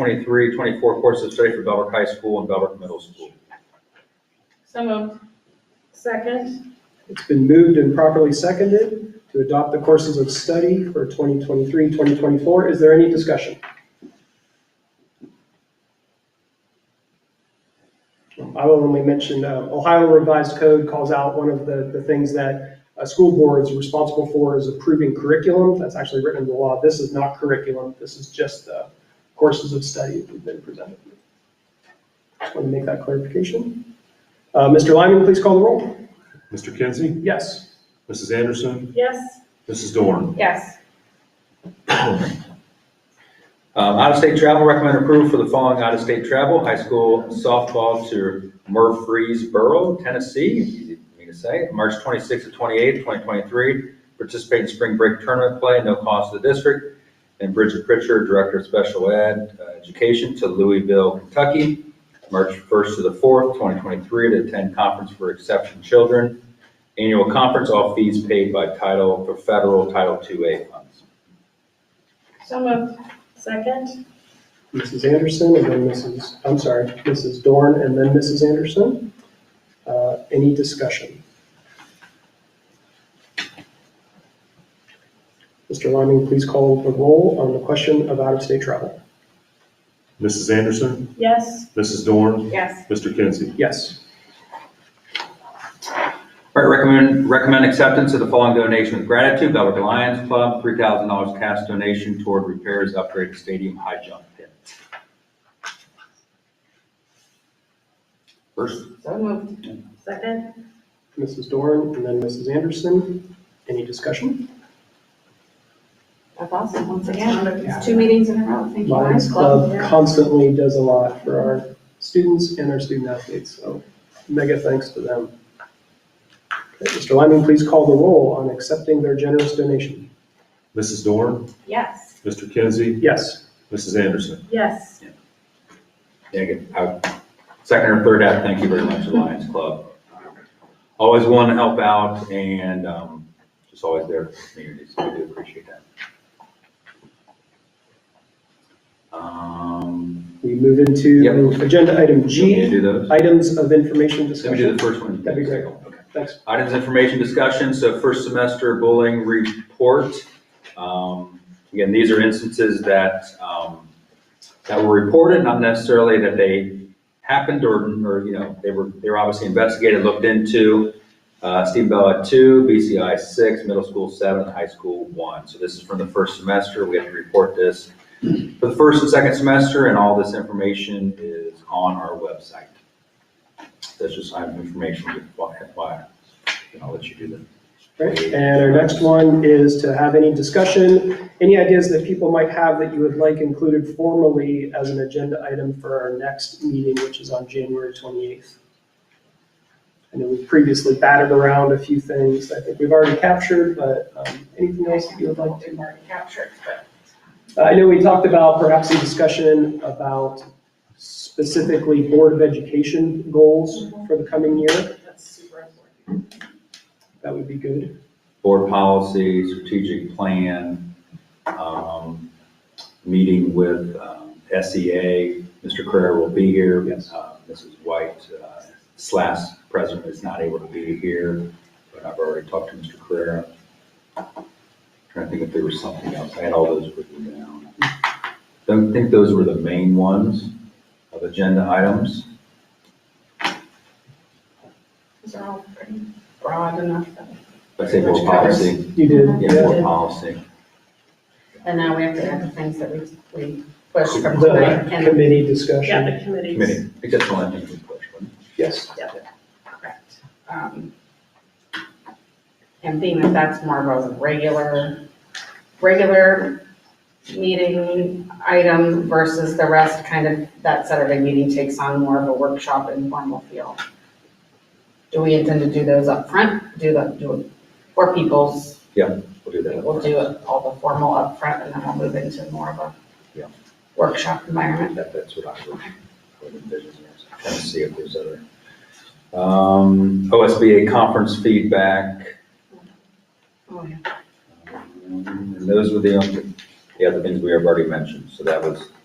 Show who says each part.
Speaker 1: 2023, 24 course of study for Belbrook High School and Belbrook Middle School.
Speaker 2: So moved.
Speaker 3: Second.
Speaker 4: It's been moved and properly seconded to adopt the courses of study for 2023, 2024. Is there any discussion? I will only mention, uh, Ohio Revised Code calls out one of the, the things that a school board is responsible for is approving curriculum. That's actually written into the law. This is not curriculum. This is just the courses of study that have been presented. Just want to make that clarification. Uh, Mr. Lyman, please call the roll.
Speaker 5: Mr. Kinsey,
Speaker 4: Yes.
Speaker 5: Mrs. Anderson,
Speaker 3: Yes.
Speaker 5: Mrs. Dorn.
Speaker 2: Yes.
Speaker 1: Um, Out-of-state travel, recommend approval for the following out-of-state travel, high school softball to Murfreesboro, Tennessee, easy for me to say, March 26th to 28th, 2023, participate in spring break tournament play, no cost to the district, and Bridget Pritchard, Director of Special Ed uh, Education to Louisville, Kentucky, March 1st to the 4th, 2023, to attend conference for exception children, annual conference, all fees paid by title, for federal Title IIA funds.
Speaker 2: So moved.
Speaker 3: Second.
Speaker 4: Mrs. Anderson, and then Mrs., I'm sorry, Mrs. Dorn, and then Mrs. Anderson. Uh, Any discussion? Mr. Liming, please call the roll on the question of out-of-state travel.
Speaker 5: Mrs. Anderson,
Speaker 3: Yes.
Speaker 5: Mrs. Dorn,
Speaker 2: Yes.
Speaker 5: Mr. Kinsey.
Speaker 4: Yes.
Speaker 1: All right, recommend, recommend acceptance of the following donation with gratitude, Belwick Lions Club, three thousand dollars cash donation toward repairs, upgrade to stadium high jump pit. First,
Speaker 2: So moved.
Speaker 3: Second.
Speaker 4: Mrs. Dorn, and then Mrs. Anderson. Any discussion?
Speaker 2: That's awesome. Once again, it's two meetings in a row. Thank you,
Speaker 4: Lions
Speaker 2: Lions
Speaker 4: Club
Speaker 3: yeah.
Speaker 4: constantly does a lot for our students and our student athletes, so mega thanks to them. Okay, Mr. Liming, please call the roll on accepting their generous donation.
Speaker 5: Mrs. Dorn,
Speaker 2: Yes.
Speaker 5: Mr. Kinsey,
Speaker 4: Yes.
Speaker 5: Mrs. Anderson.
Speaker 3: Yes.
Speaker 1: yeah, good. I- second or third half, thank you very much, Lions Club. Always willing to help out and, um, just always there for the community, so we do appreciate that. Um,
Speaker 4: We move into
Speaker 1: Yep.
Speaker 4: agenda
Speaker 1: do
Speaker 4: item
Speaker 1: we need to
Speaker 4: G,
Speaker 1: do those?
Speaker 4: items of information
Speaker 1: Let me do
Speaker 4: discussion.
Speaker 1: the first one.
Speaker 4: That'd be great. Thanks.
Speaker 1: Items, information discussion, so first semester bullying report. Um, Again, these are instances that, um, that were reported, not necessarily that they happened or, or, you know, they were, they were obviously investigated, looked into. Uh, Steve Bell at two, BCI six, middle school seven, high school one. So this is from the first semester, we have to report this for the first and second semester, and all this information is on our website. That's just item information, FYI. And I'll let you do
Speaker 4: Right, and our next one is to have any discussion, any ideas that people might have that you would like included formally as an agenda item for our next meeting, which is on January 28th. I know we've previously batted around a few things that I think we've already captured, but um, anything else that you would like to?
Speaker 2: already captured, but.
Speaker 4: Uh, I know we talked about perhaps a discussion about specifically Board of Education goals for the coming year.
Speaker 2: That's super important.
Speaker 4: That would be good.
Speaker 1: board policy, strategic plan, um, meeting with um, SEA. Mr. Carrera will be here.
Speaker 4: Yes.
Speaker 1: Uh, Mrs. White uh, slash president is not able to be here, but I've already talked to Mr. Carrera. Trying to think if there was something else. I had all those written down. Don't think those were the main ones of agenda items.
Speaker 2: These are all pretty broad enough. that-
Speaker 1: I say
Speaker 2: Which
Speaker 1: board
Speaker 2: covers-
Speaker 1: policy.
Speaker 4: You did,
Speaker 1: Yeah,
Speaker 4: yeah.
Speaker 1: board policy.
Speaker 6: And now we have to add the things that we, we pushed from
Speaker 4: The
Speaker 6: tonight. And
Speaker 4: committee discussion.
Speaker 3: Yeah, the committees.
Speaker 1: Committee, except one, I think we pushed one.
Speaker 4: Yes,
Speaker 6: Correct. Um, And being that that's more of a regular, regular meeting item versus the rest, kind of, that Saturday meeting takes on more of a workshop informal feel. Do we intend to do those up front? Do the, do it for people's
Speaker 1: We'll do that.
Speaker 6: We'll do it all the formal up front, and then we'll move into more of
Speaker 1: Yeah.
Speaker 6: a workshop environment.
Speaker 1: That, that's what I would, I would envision, yes. Kind of see if there's other. Um, OSBA conference feedback,
Speaker 6: Oh, yeah.
Speaker 1: um, and those were the, only- the other things we have already mentioned, so that was